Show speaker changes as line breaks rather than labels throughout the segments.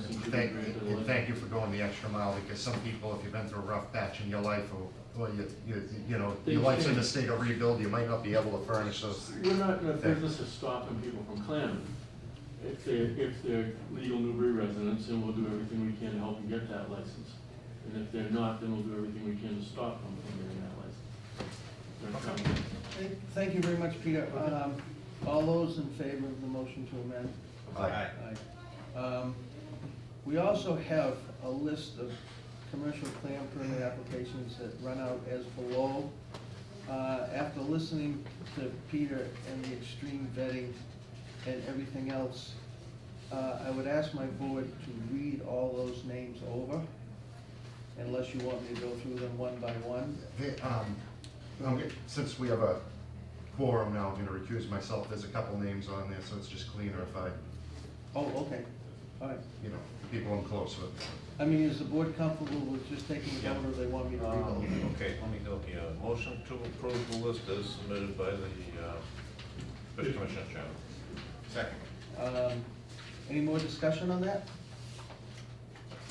thank, and thank you for going the extra mile, because some people, if you've been through a rough patch in your life, or, well, you, you, you know, your life's in a state of rebuild, you might not be able to furnish those.
We're not in the business of stopping people from clamming. If they're, if they're legal Newbury residents, then we'll do everything we can to help them get that license. And if they're not, then we'll do everything we can to stop them from getting that license. They're coming.
Thank you very much, Peter. Um, All those in favor of the motion to amend?
Aye.
Aye. Um, We also have a list of commercial clam permit applications that run out as below. Uh, After listening to Peter and the extreme vetting and everything else, uh, I would ask my board to read all those names over, unless you want me to go through them one by one.
The, um, I'm get- Since we have a quorum now, I'm gonna recuse myself, there's a couple names on there, so it's just cleaner if I,
Oh, okay, all right.
you know, people I'm close with.
I mean, is the board comfortable with just taking it over, or they want me to read all of them?
Um, Okay, let me go here. Motion to approve the list as submitted by the uh, Fish Commissioner Chairman.
Second.
Um, Any more discussion on that?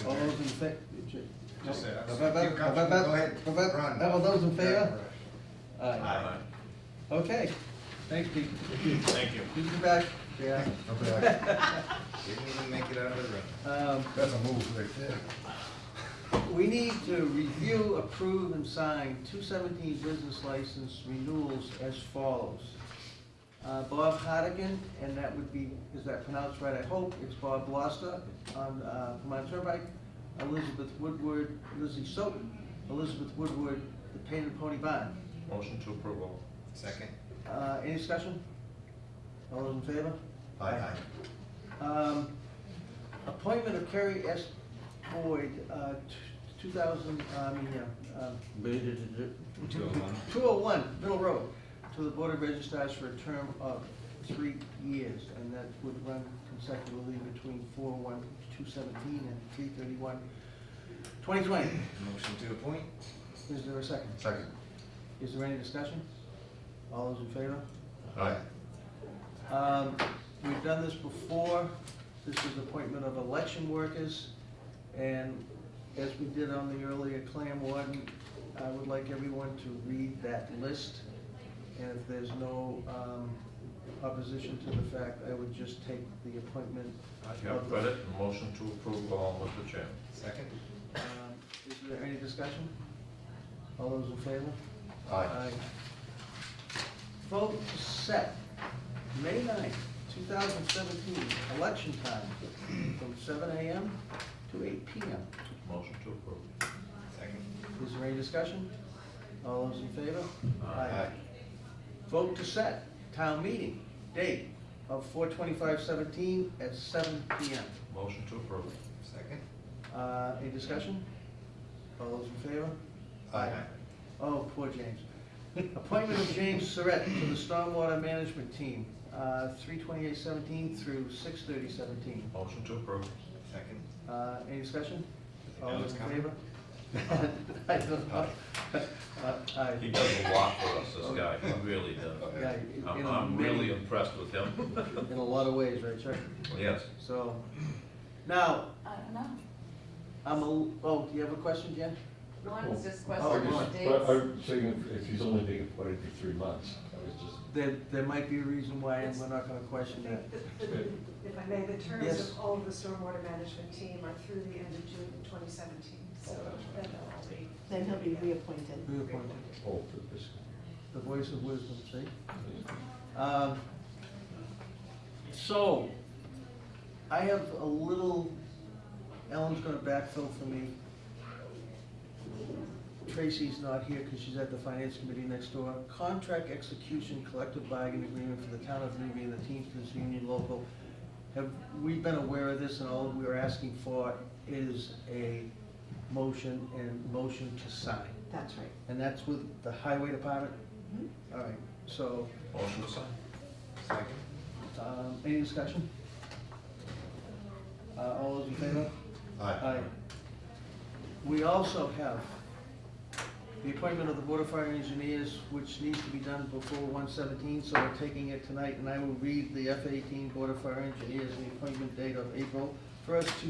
All those in fa-
Just that.
Ba- ba- ba- ba- ba-
Go ahead.
ba- ba-
Run.
All those in favor?
Yeah.
Aye.
Aye.
Okay, thanks, Pete.
Thank you.
Good to be back.
Yeah,
Okay,
didn't even make it out of the room.
Um,
that's a move right there.
We need to review, approve, and sign two seventeen business license renewals as follows. Uh, Bob Hardigan, and that would be, is that pronounced right, I hope, it's Bob Blaster on, uh, Vermont Turnpike, Elizabeth Woodward, Lizzie Soton, Elizabeth Woodward, the Painted Pony Barn.
Motion to approval.
Second.
Uh, any discussion? All those in favor?
Aye.
Um, Appointment of Kerry S. Boyd, uh, t- two thousand, uh, I mean, yeah, um,
Two oh one.
201 Middle Road to the Board of Registars for a term of three years, and that would run consecutively between 4/1/217 and 3/31/2020.
Motion to appoint?
Is there a second?
Second.
Is there any discussion? All those in favor?
Aye.
Um, We've done this before. This is appointment of election workers. And as we did on the earlier clam warden, I would like everyone to read that list. And if there's no um, opposition to the fact, I would just take the appointment.
You have read it. Motion to approve all, Mr. Chairman.
Second.
Um, Is there any discussion? All those in favor?
Aye.
Vote set, May ninth, two thousand seventeen, election time, from seven AM to eight PM.
Motion to approve.
Second.
Is there any discussion? All those in favor?
Aye.
Vote to set, town meeting, date of four twenty-five seventeen at seven PM.
Motion to approve.
Second.
Uh, any discussion? All those in favor?
Aye.
Oh, poor James. Appointment of James Surratt to the Stormwater Management Team, uh, three twenty-eight seventeen through six thirty seventeen. Uh,
Motion to approve.
Second.
Any discussion? All
Now
those
it's
in
coming.
favor? I don't know. Uh, aye.
He does a lot for us, this guy. He really does.
Yeah, in
I'm,
a
I'm really
many-
impressed with him.
In a lot of ways, right, Chuck?
Yes.
So, now,
I don't know.
I'm a, oh, do you have a question, Jen?
One was just
Oh,
question
one.
of
But
dates.
I'm saying if- if he's only being appointed for three months, I was just,
There, there might be a reason why, and we're not gonna question that.
If I may, the terms
Yes.
of all of the stormwater management team are through the end of June 2017, so
Oh,
then they'll all be.
Then he'll be reappointed.
Reappointed.
oh, for this.
The voice of wisdom, see? Um, So, I have a little, Ellen's gonna backfill for me. Tracy's not here because she's at the finance committee next door. Contract execution collective bargaining agreement for the town of Newbury and the Teamsters Union Local. Have we been aware of this and all we are asking for is a motion and motion to sign?
That's right.
And that's with the highway department? All right, so,
Motion to sign.
Second.
um, any discussion? Uh, all those in favor?
Aye.
We also have the appointment of the Board of Fire Engineers, which needs to be done before one seventeen, so we're taking it tonight, and I will read the F eighteen Board of Fire Engineers, the appointment date of April first, two